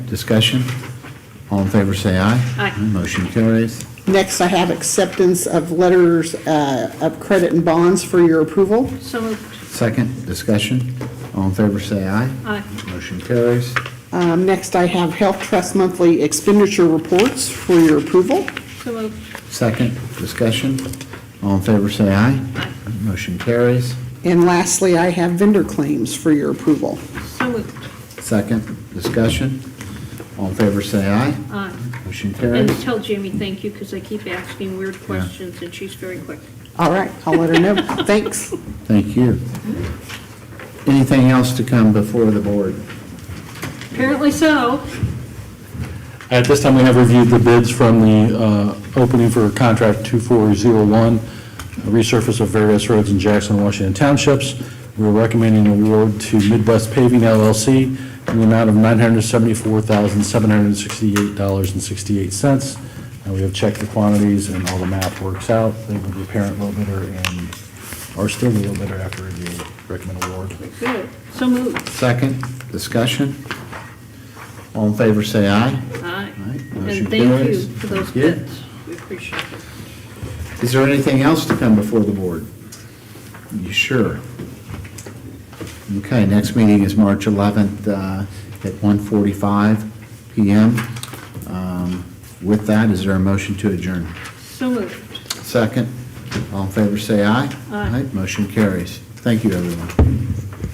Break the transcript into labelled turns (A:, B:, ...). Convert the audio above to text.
A: Discussion? All in favor, say aye.
B: Aye.
A: Motion carries.
C: Next, I have acceptance of letters uh, of credit and bonds for your approval.
B: So moved.
A: Second, discussion? All in favor, say aye.
B: Aye.
A: Motion carries.
C: Um, Next, I have Health Trust monthly expenditure reports for your approval.
B: So moved.
A: Second, discussion? All in favor, say aye. Motion carries.
C: And lastly, I have vendor claims for your approval.
B: So moved.
A: Second, discussion? All in favor, say aye.
B: Aye.
A: Motion
B: And
A: carries.
B: tell Jamie thank you, because I keep asking weird questions, and she's very quick.
C: All right, I'll let her know. Thanks.
A: Thank you. Anything else to come before the board?
B: Apparently so.
D: At this time, we have reviewed the bids from the uh, opening for contract 2401, resurface of various roads in Jackson, and Washington Townships. We're recommending an award to Midwest Paving LLC in the amount of $974,768.68. And we have checked the quantities and all the math works out. They were the parent low bidder and are still the low bidder after review. Recommend award.
B: Good. So moved.
A: Second, discussion? All in favor, say aye.
B: Aye.
A: Aye. Motion
B: And thank you
A: carries.
B: for those
A: Thank you.
B: bids. We appreciate it.
A: Is there anything else to come before the board? You sure? Okay, next meeting is March 11th uh, at 1:45 PM. Um, With that, is there a motion to adjourn?
B: So moved.
A: Second, all in favor, say aye.
B: Aye.
A: Motion carries. Thank you, everyone.